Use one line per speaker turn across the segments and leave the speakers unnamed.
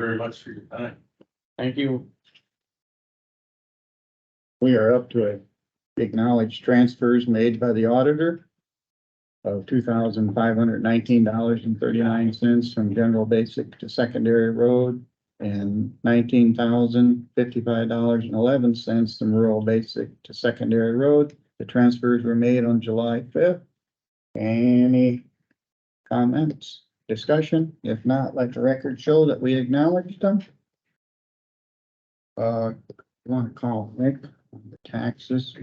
very much for your time.
Thank you.
We are up to acknowledge transfers made by the auditor of two thousand five hundred nineteen dollars and thirty-nine cents from general basic to secondary road and nineteen thousand fifty-five dollars and eleven cents from rural basic to secondary road. The transfers were made on July fifth. Any comments, discussion? If not, let the record show that we acknowledged them. Uh, you wanna call Nick? the taxes.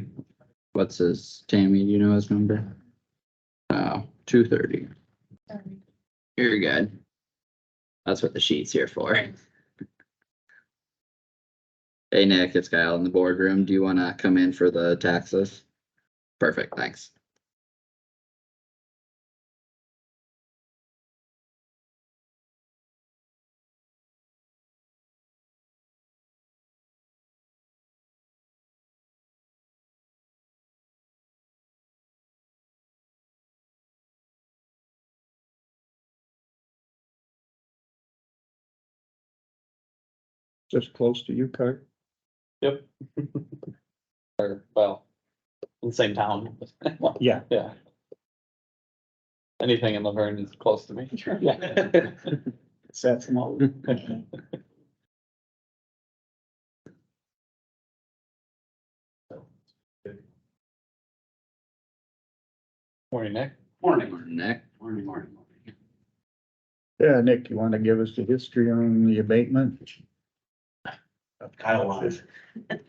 What's his, Tammy, do you know his number? Oh, two thirty. You're good. That's what the sheet's here for. Hey Nick, it's Kyle in the boardroom. Do you wanna come in for the taxes? Perfect, thanks.
Just close to you, Kurt.
Or, well, in the same town.
Yeah.
Yeah. Anything in Laverne is close to me. Yeah.
That's them all.
Morning, Nick.
Morning,
Nick,
morning, morning, morning.
Yeah, Nick, you want to give us the history on the abatement?
Kyle Wise.
Carter.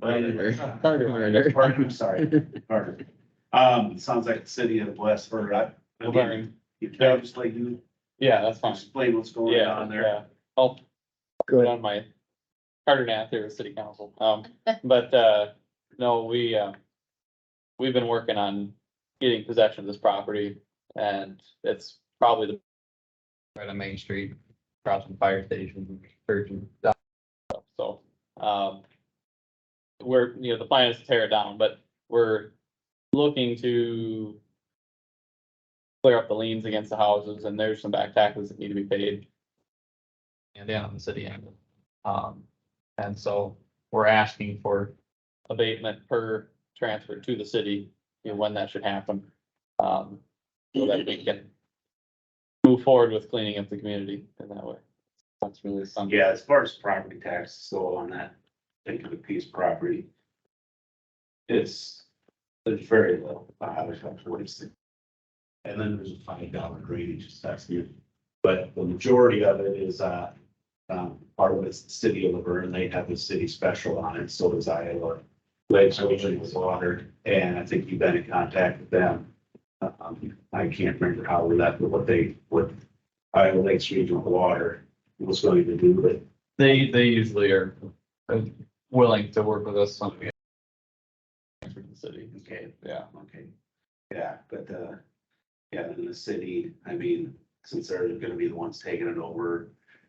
Pardon, I'm sorry, pardon. Um, it sounds like the city of Westford, I, again,
Laverne.
you can just like you
Yeah, that's fine.
explain what's going
Yeah,
on there.
yeah. I'll put
Good.
on my Carter Nat there with city council. Um, but, uh, no, we, uh, we've been working on getting possession of this property and it's probably the
Right on Main Street, across from fire station, church and stuff.
So, um, we're, you know, the plan is to tear it down, but we're looking to clear up the liens against the houses and there's some back taxes that need to be paid. And down on the city end. Um, and so we're asking for abatement per transfer to the city, you know, when that should happen. Um, so that we can move forward with cleaning up the community in that way. That's really something.
Yeah, as far as property tax, so on that particular piece of property. It's, it's very low, I was up forty-six. And then there's a five dollar drainage assessment, but the majority of it is, uh, um, part of it's the city of Laverne, they have the city special on it, so does Iowa. Lakes originally was watered, and I think you've been in contact with them. Um, I can't remember how we left, but what they, what Iowa Lakes Regional Water was going to do, but
They, they usually are uh, willing to work with us on. the- For the city,
Okay,
yeah.
okay, yeah, but, uh, yeah, in the city, I mean, since they're gonna be the ones taking it over,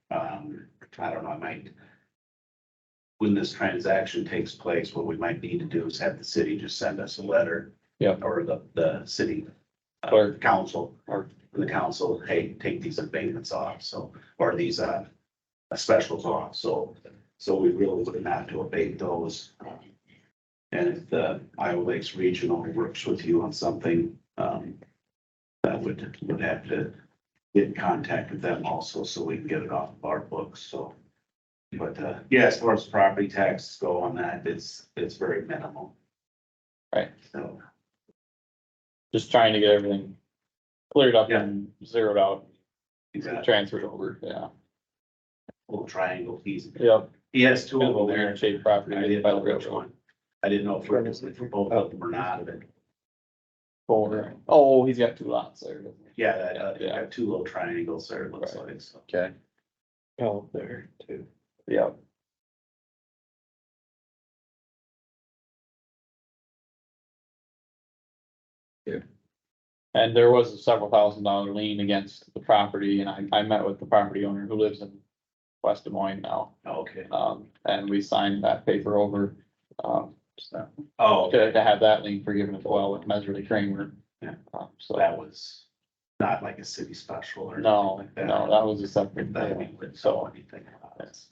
um, I don't know, I might. When this transaction takes place, what we might need to do is have the city just send us a letter.
Yeah.
Or the, the city. uh,
Clerk.
Council, or the council, hey, take these abatements off, so, or these, uh, specials off, so, so we really would not to abate those. And if the Iowa Lakes Regional works with you on something, um, that would, would have to get in contact with them also, so we can get it off of our books, so. But, uh, yeah, as far as property taxes go on that, it's, it's very minimal.
Right.
So,
Just trying to get everything cleared up
Yeah.
and zeroed out,
he's got a
transferred over, yeah.
little triangle, he's,
Yep.
he has two
Kind
of
of a
them there.
weird shaped
I
property
didn't
by
know
the
which
railroad.
one. I didn't know if we're just for both of them or not, but
Or, oh, he's got two lots there. doesn't he?
yeah, that, uh, they
Yeah.
have two little triangles there, it looks like, so.
Okay,
Oh, there too.
Yep.
Yeah.
And there was a several thousand dollar lien against the property, and I, I met with the property owner who lives in West Des Moines now,
Okay,
um, and we signed that paper over. Um, so,
oh,
to, to have that lien forgiven as well with Meserly Kramer.
Yeah.
Um,
so
So
that was, not like a city special or anything
No,
like that.
no, that was a separate
That we
thing,
wouldn't know
so.
anything about.
yes.